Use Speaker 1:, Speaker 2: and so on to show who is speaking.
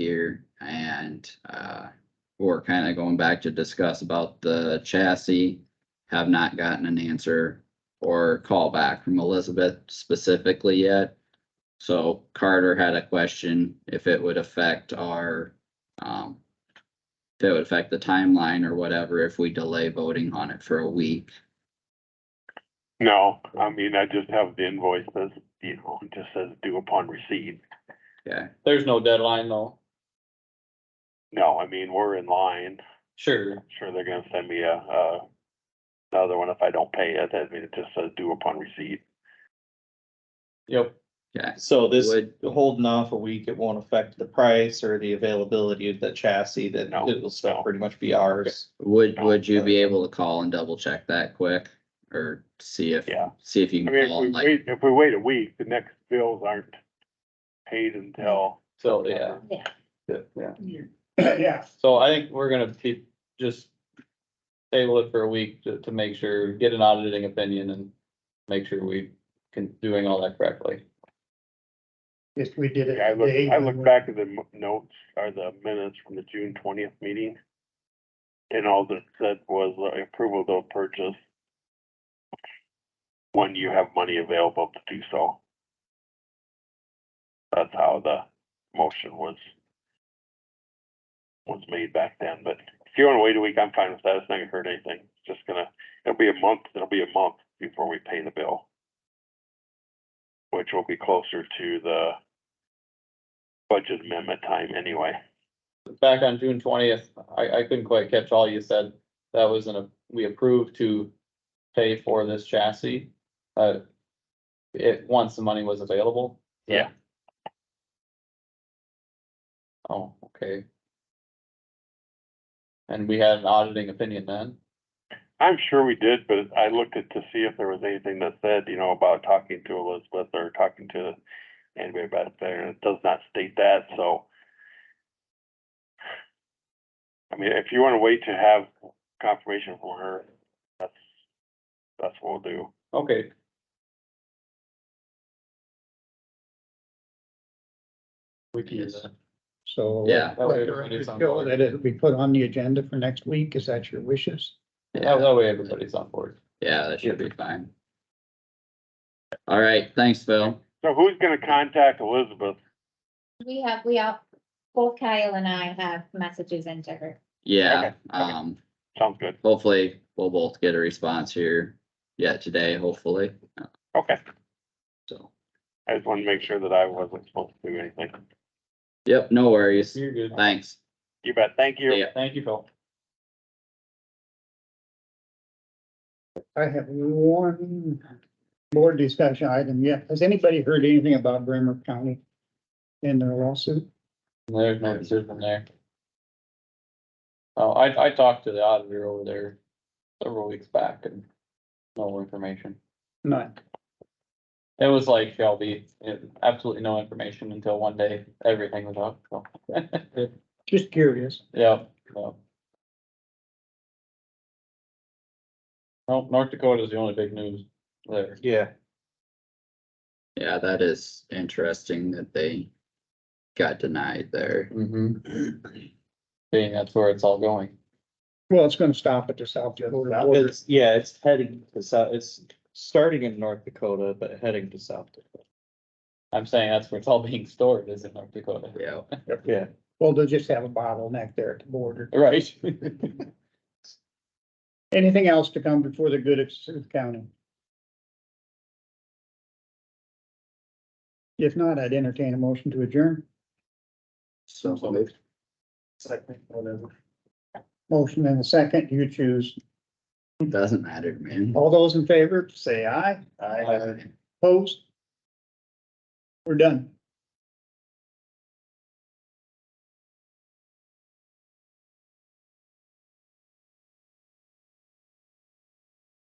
Speaker 1: here and uh, we're kind of going back to discuss about the chassis. Have not gotten an answer or call back from Elizabeth specifically yet. So Carter had a question if it would affect our um, if it would affect the timeline or whatever if we delay voting on it for a week.
Speaker 2: No, I mean, I just have the invoice that's, you know, it just says due upon receipt.
Speaker 1: Okay,
Speaker 3: There's no deadline though.
Speaker 2: No, I mean, we're in line.
Speaker 3: Sure.
Speaker 2: Sure, they're gonna send me a, uh, another one if I don't pay it. I mean, it just says due upon receipt.
Speaker 3: Yep.
Speaker 1: okay.
Speaker 4: So this
Speaker 1: Would-
Speaker 4: holding off a week, it won't affect the price or the availability of the chassis, then
Speaker 2: No,
Speaker 4: it will
Speaker 2: no.
Speaker 4: still pretty much be ours.
Speaker 1: Would, would you be able to call and double check that quick? Or see if,
Speaker 2: Yeah.
Speaker 1: see if you
Speaker 2: I
Speaker 1: can
Speaker 2: mean, if
Speaker 1: call
Speaker 2: we
Speaker 1: and like,
Speaker 2: wait, if we wait a week, the next bills aren't paid until.
Speaker 3: So, yeah.
Speaker 5: Yeah.
Speaker 3: Yeah.
Speaker 5: Yeah.
Speaker 3: So I think we're gonna keep, just table it for a week to, to make sure, get an auditing opinion and make sure we can, doing all that correctly.
Speaker 5: If we did it
Speaker 2: I look,
Speaker 5: today.
Speaker 2: I
Speaker 5: we
Speaker 2: look
Speaker 5: would-
Speaker 2: back at the m- notes, or the minutes from the June twentieth meeting. And all that said was uh, approval of purchase. When you have money available to do so. That's how the motion was. Was made back then, but if you wanna wait a week, I'm fine with that, it's not gonna hurt anything, it's just gonna, it'll be a month, it'll be a month before we pay the bill. Which will be closer to the budget amendment time anyway.
Speaker 3: Back on June twentieth, I, I couldn't quite catch all you said. That was in a, we approved to pay for this chassis. Uh, it, once the money was available.
Speaker 2: Yeah.
Speaker 3: Oh, okay. And we had an auditing opinion then?
Speaker 2: I'm sure we did, but I looked at to see if there was anything that said, you know, about talking to Elizabeth or talking to anybody about there, and it does not state that, so. I mean, if you wanna wait to have confirmation from her, that's, that's what we'll do.
Speaker 3: Okay. We can do
Speaker 5: Yes.
Speaker 3: that.
Speaker 5: So.
Speaker 1: Yeah.
Speaker 3: That way
Speaker 5: Let the
Speaker 3: everybody's on
Speaker 5: record show
Speaker 3: board.
Speaker 5: That it'll be put on the agenda for next week. Is that your wishes?
Speaker 3: Yeah, that way everybody's on board.
Speaker 1: yeah, that should be fine. All right, thanks, Phil.
Speaker 2: So who's gonna contact Elizabeth?
Speaker 6: We have, we have, both Kyle and I have messages into her.
Speaker 1: Yeah,
Speaker 2: Okay, okay.
Speaker 1: um,
Speaker 2: Sounds good,
Speaker 1: hopefully we'll both get a response here yet today, hopefully,
Speaker 2: okay,
Speaker 1: so.
Speaker 2: I just wanted to make sure that I wasn't supposed to do anything.
Speaker 1: Yep, no worries.
Speaker 3: You're good.
Speaker 1: Thanks.
Speaker 2: You bet, thank you.
Speaker 1: See ya.
Speaker 3: Thank you, Phil.
Speaker 5: I have one board discussion item yet. Has anybody heard anything about Bremer County in their lawsuit?
Speaker 3: There's no decision there. Oh, I, I talked to the auditor over there several weeks back and no information.
Speaker 5: None.
Speaker 3: It was like Shelby, it- absolutely no information until one day, everything was up, so.
Speaker 5: Just curious.
Speaker 3: Yeah, no. Well, North Dakota is the only big news there.
Speaker 4: Yeah.
Speaker 1: Yeah, that is interesting that they got denied there.
Speaker 3: Mm-hmm. Being that's where it's all going.
Speaker 5: Well, it's gonna stop at the South Dakota border.
Speaker 4: It's, yeah, it's heading to South, it's starting in North Dakota, but heading to South Dakota.
Speaker 3: I'm saying that's where it's all being stored is in North Dakota.
Speaker 1: Yeah,
Speaker 4: Yeah.
Speaker 5: Well, they'll just have a bottleneck there at the border.
Speaker 3: Right?
Speaker 5: Anything else to come before the good of Sioux County? If not, I'd entertain a motion to adjourn.
Speaker 1: so moved.
Speaker 5: Second, whatever. Motion and a second, you choose.
Speaker 1: doesn't matter, man.
Speaker 5: All those in favor, say aye.
Speaker 3: Aye.
Speaker 5: Opposed? We're done.